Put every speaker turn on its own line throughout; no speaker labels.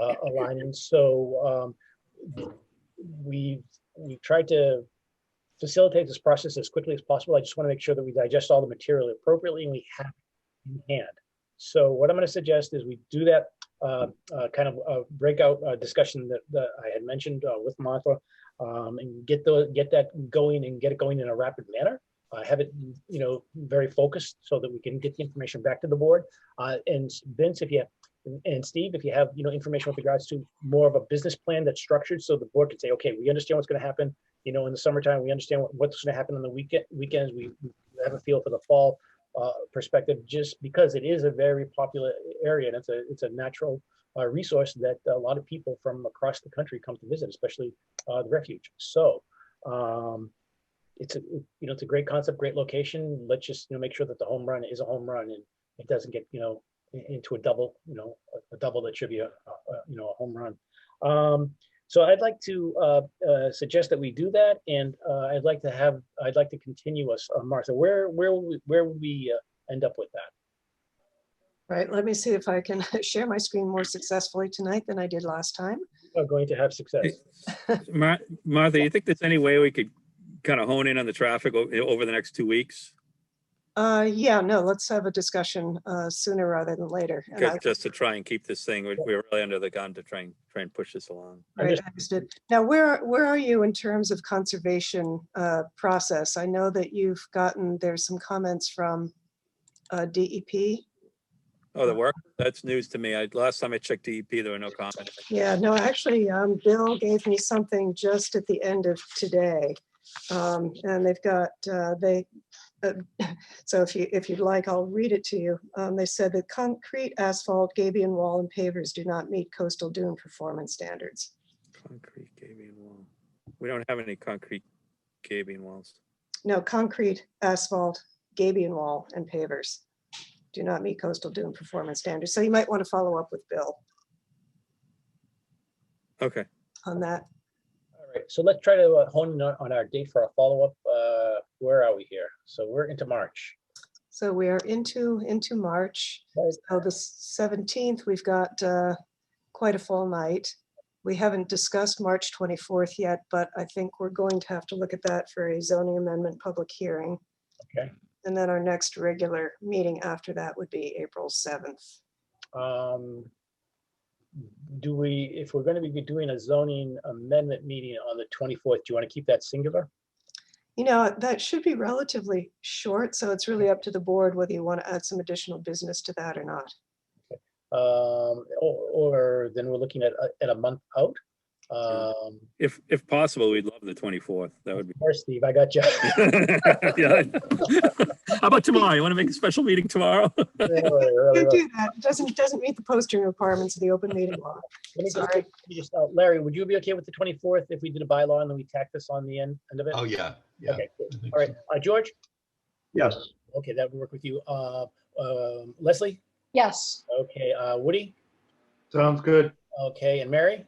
uh, align. And so um, we, we tried to facilitate this process as quickly as possible. I just want to make sure that we digest all the material appropriately and we have it in hand. So what I'm going to suggest is we do that uh, uh, kind of uh, breakout uh, discussion that that I had mentioned uh, with Martha um, and get the, get that going and get it going in a rapid manner. Uh, Have it, you know, very focused so that we can get the information back to the board. Uh, And Vince, if you have and- And Steve, if you have, you know, information with regards to more of a business plan that's structured, so the board can say, okay, we understand what's gonna happen. You know, in the summertime, we understand what- what's gonna happen on the weekend, weekends, we we have a feel for the fall uh, perspective, just because it is a very popular area and it's a, it's a natural uh, resource that a lot of people from across the country come to visit, especially uh, the refuge. So um, it's a, you know, it's a great concept, great location. Let's just, you know, make sure that the home run is a home run and it doesn't get, you know, i- into a double, you know, a- a double that should be a, a- a, you know, a home run. Um, so I'd like to uh, uh, suggest that we do that, and uh, I'd like to have, I'd like to continue us, uh, Martha. Where, where, will we- where will we uh, end up with that?
Right, let me see if I can share my screen more successfully tonight than I did last time.
Are going to have success?
Mar- Martha, you think there's any way we could kind of hone in on the traffic o- over the next two weeks?
Uh, yeah, no, let's have a discussion, uh, sooner rather than later. And I-
Just- Just to try and keep this thing, we're we're really under the gun to try and, try and push this along.
Right, I understood. Now, where, where are you in terms of conservation, uh, process? I know that you've gotten, there's some comments from, uh, DEP.
Oh, the work, that's news to me. I, last time I checked DEP, there were no comments.
Yeah, no, actually, um, Bill gave me something just at the end of today. Um, and they've got, uh, they, uh, so if you, if you'd like, I'll read it to you. Um, they said that concrete, asphalt, gabion wall and pavers do not meet coastal dune performance standards.
Concrete gabing wall. We don't have any concrete gabing walls.
No, concrete, asphalt, gabion wall and pavers do not meet coastal dune performance standards. So you might want to follow up with Bill
Okay,
on that.
All right, so let's try to uh, hone in on on our date for our follow-up. Uh, Where are we here? So we're into March.
So we are into, into March.
Right.
So Oh, the seventeenth, we've got uh, quite a full night. We haven't discussed March twenty-fourth yet, but I think we're going to have to look at that for a zoning amendment public hearing.
Okay.
And then our next regular meeting after that would be April seventh.
Um, Do we, if we're going to be doing a zoning amendment meeting on the 24th, do you want to keep that singular?
You know, that should be relatively short, so it's really up to the board whether you want to add some additional business to that or not.
Um, Or or then we're looking at, a- at a month out? Um,
if, if possible, we'd love the 24th. That would be.
Or Steve, I got you.
Yeah. How about tomorrow? You want to make a special meeting tomorrow?
Really, really,
Can't
really.
do that. It doesn't, doesn't meet the posting requirements of the open meeting law.
Let me just-
Sorry.
let me just, uh, Larry, would you be okay with the 24th if we did a bylaw and then we tack this on the end, end of it?
Oh, yeah, yeah.
Okay, cool.
I think
all right. Uh, George?
Yes.
Okay, that would work with you. Uh, um, Leslie?
Yes.
Okay, uh, Woody?
Sounds good.
Okay, and Mary?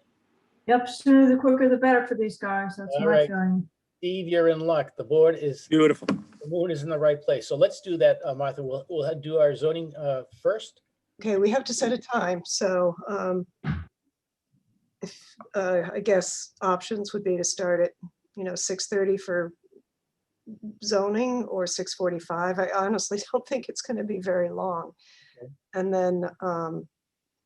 Yep, sooner the quicker the better for these guys. That's
All
my
right.
feeling.
Steve, you're in luck. The board is,
Beautiful.
the moon is in the right place. So let's do that, uh, Martha. We'll, we'll do our zoning uh, first.
Okay, we have to set a time, so um if, uh I guess, options would be to start at, you know, 6:30 for zoning or 6:45. I honestly don't think it's going to be very long.
Okay.
And then um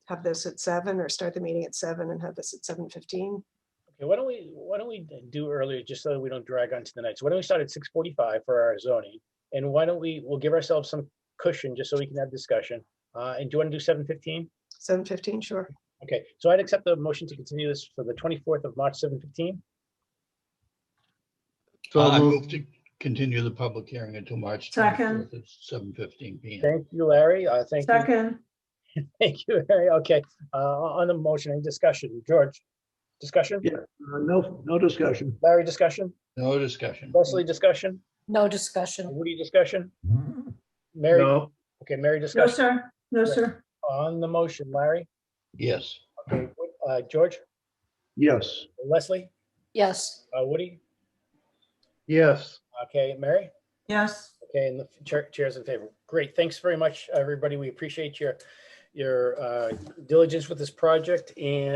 have this at seven, or start the meeting at seven and have this at 7:15.
Okay, why don't we, why don't we do earlier, just so that we don't drag on to the night. So why don't we start at 6:45 for our zoning? And why don't we, we'll give ourselves some cushion just so we can have discussion. Uh, And do you want to do 7:15?
7:15, sure.
Okay, so I'd accept the motion to continue this for the 24th of March, 7:15.
Uh,
So
I
moved.
move to continue the public hearing until March
Second.
24th at 7:15 PM.
Thank you, Larry. Uh, Thank you.
Second,
Thank you, Larry. Okay, uh, on the motion, any discussion? George, discussion?
Yeah. uh, No, no discussion.
Larry, discussion?
No discussion.
Leslie, discussion?
No discussion.
Woody, discussion? Mary,
No,
okay, Mary,
no,
discussion
sir, no, sir.
on the motion, Larry,
Yes.
okay, Wo- uh, George,
yes,
Leslie,
Yes,
uh, Woody,
yes.
okay, Mary?
Yes,
Okay, and the chair, chair's in favor. Great, thanks very much, everybody. We appreciate your, your uh, diligence with this project and